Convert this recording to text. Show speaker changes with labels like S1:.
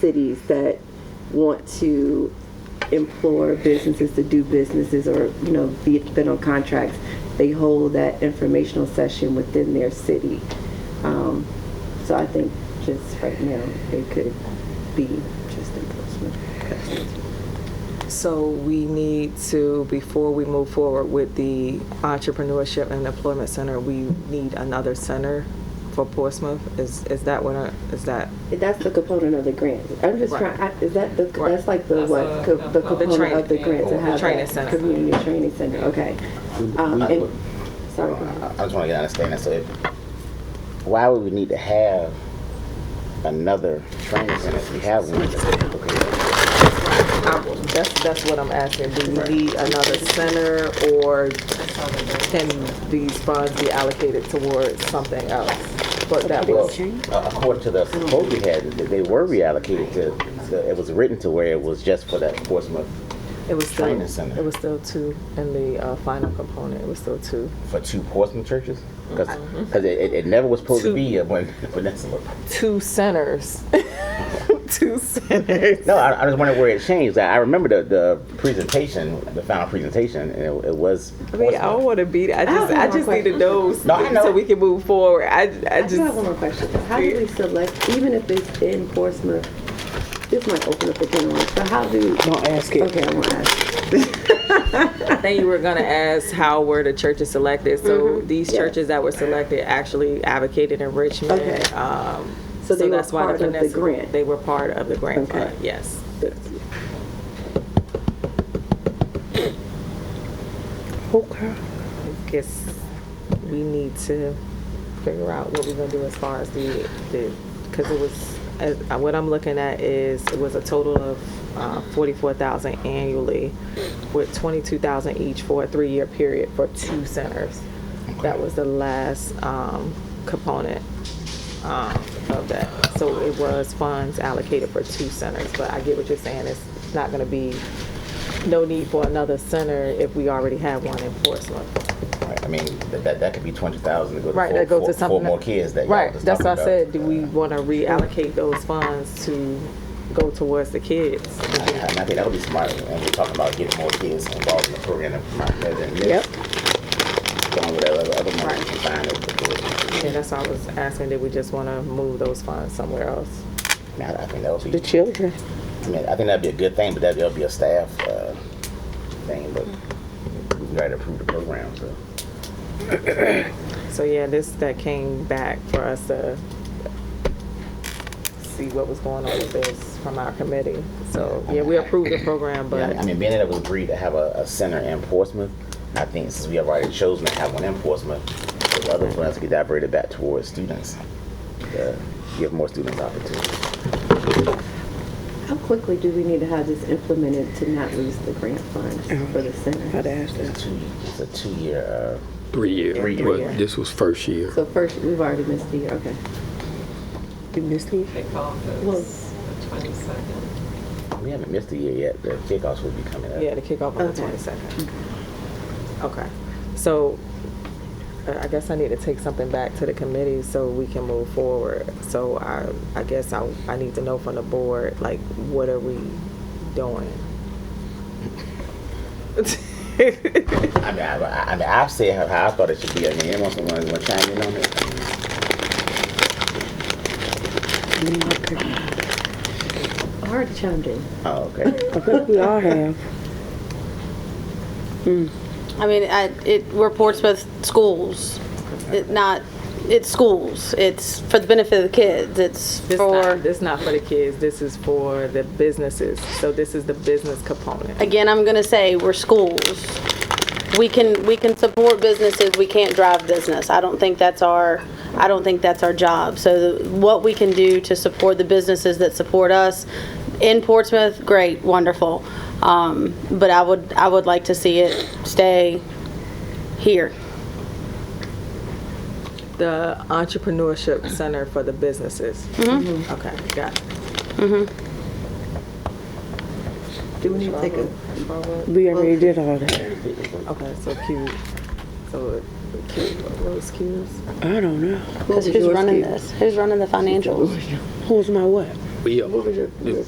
S1: cities that want to implore businesses to do businesses or, you know, be, been on contracts, they hold that informational session within their city. Um, so I think just right now, it could be just enforcement.
S2: So we need to, before we move forward with the Entrepreneurship and Employment Center, we need another center for Portsmouth? Is, is that what, I- is that?
S1: That's the component of the grant. I'm just
S2: Right.
S1: trying, I- is that the,
S2: Right.
S1: that's like the what, co- the component
S2: training-
S1: of the grant to
S2: the
S1: have
S2: training
S1: that
S2: center.
S1: community training center, okay. Um, and- Sorry, go ahead.
S3: I I just want to get understanding. So, if, why would we need to have another training center if we have one? Okay.
S2: That's, that's what I'm asking. Do we need another center or can these funds be allocated towards something else? But that
S3: Well,
S2: was,
S3: uh, according to the quote we had, th- they were reallocated to. so it was written to where it was just for that Portsmouth
S2: it was still,
S3: training center.
S2: it was still two in the uh, final component. It was still two.
S3: for two Portsmouth churches because it, it, it never was supposed
S2: Uh-huh. Two.
S3: to be a one peninsula.
S2: Two centers. Two centers.
S3: No, I, I just wondering where it changed. I, I remember the, the presentation, the final presentation, and it, it was.
S2: I mean, I don't want to beat. I
S1: have
S2: just,
S1: one
S2: I
S1: more
S2: just need to
S1: question.
S2: know,
S3: No, I know.
S2: so we can move forward. I, I
S1: I just have
S2: just,
S1: one more question. How do we select, even if it's in Portsmouth, this might open up a can of worms, but how do,
S3: Don't ask it.
S1: okay, I want to ask.
S2: I think you were gonna ask how were the churches selected. So these
S1: Yeah.
S2: churches that were selected actually advocated enrichment.
S1: Okay.
S2: Um,
S1: So they were
S2: that's why
S1: part of the
S2: Vanessa-
S1: grant?
S2: They were part of the grant
S1: Okay.
S2: fund. Yes.
S3: Okay.
S2: I guess we need to figure out what we're gonna do as far as the the because it was as, uh, what I'm looking at is it was a total of uh, forty four thousand annually, with twenty two thousand each for a three year period for two centers. That was the last um, component um, of that. So it was funds allocated for two centers. But I get what you're saying. It's not gonna be no need for another center if we already have one in Portsmouth.
S3: Right, I mean, that, that, that could be twenty thousand to go to
S2: Right,
S3: four,
S2: that goes
S3: four-
S2: to something.
S3: four more kids that y'all
S2: Right,
S3: was
S2: that's
S3: talking
S2: what I said,
S3: about.
S2: do we want to reallocate those funds to go towards the kids?
S3: And I think that would be smart, and we're talking about getting more kids involved in the program than my- than this.
S2: Yep.
S3: Going with that other, other money
S2: Right.
S3: combined with the-
S2: Yeah, that's why I was asking, did we just want to move those funds somewhere else?
S3: I mean, I I think that would
S4: the
S3: be,
S4: children.
S3: I mean, I think that'd be a good thing, but that'd, that'd be a staff, uh, thing, but
S2: Mm-hmm.
S3: we already approved the program, so.
S2: So yeah, this, that came back for us to see what was going on with this from our committee. So, yeah, we approved the program,
S3: Yeah, I
S2: but,
S3: mean, being that it was agreed to have a, a center in Portsmouth, I think since we have already chosen to have one in Portsmouth, the other funds could be diverted back towards students. uh, Give more students opportunities.
S1: How quickly do we need to have this implemented to not lose the grant funds for the center?
S4: I'd ask them.
S3: It's two, uh, it's a two-year,
S5: Three years.
S3: Three
S5: but
S3: years.
S5: This was first year.
S1: So first, we've already missed the year, okay.
S4: You missed me?
S6: They call
S1: Well-
S6: this the twenty-second.
S3: uh, we haven't missed a year yet, the kickoffs will be coming up.
S2: yeah, the kickoff on the
S1: Okay.
S2: 22nd. Okay, so uh, I I guess I need to take something back to the committee so we can move forward. So I, I guess I, I need to know from the board, like, what are we doing?
S3: I mean, I, I- I mean, I've said how- how I thought it should be, I mean, anyone want to chime in on it?
S1: I already chimed in.
S3: Oh, okay.
S4: I think we all have.
S7: I mean, I, it, we're Portsmouth schools, it not, it's schools, it's for the benefit of the kids, it's
S2: This not,
S7: for,
S2: this not for the kids, this is for the businesses. So this is the business component.
S7: again, I'm gonna say, we're schools. We can, we can support businesses, we can't drive business, I don't think that's our, I don't think that's our job. So the- what we can do to support the businesses that support us in Portsmouth, great, wonderful. Um, but I would, I would like to see it stay here.
S2: The entrepreneurship center for the businesses. Mm-hmm. Okay, got it.
S4: Mm-hmm.
S1: Do we need to take a,
S4: We already did all that.
S2: Okay, so Q, so Q, what was Q's?
S4: I don't know.
S1: what was
S7: Who's
S1: yours,
S7: running
S1: Kate?
S7: this? Who's running the financials?
S4: Who's my what?
S8: But yeah,
S5: What was your- your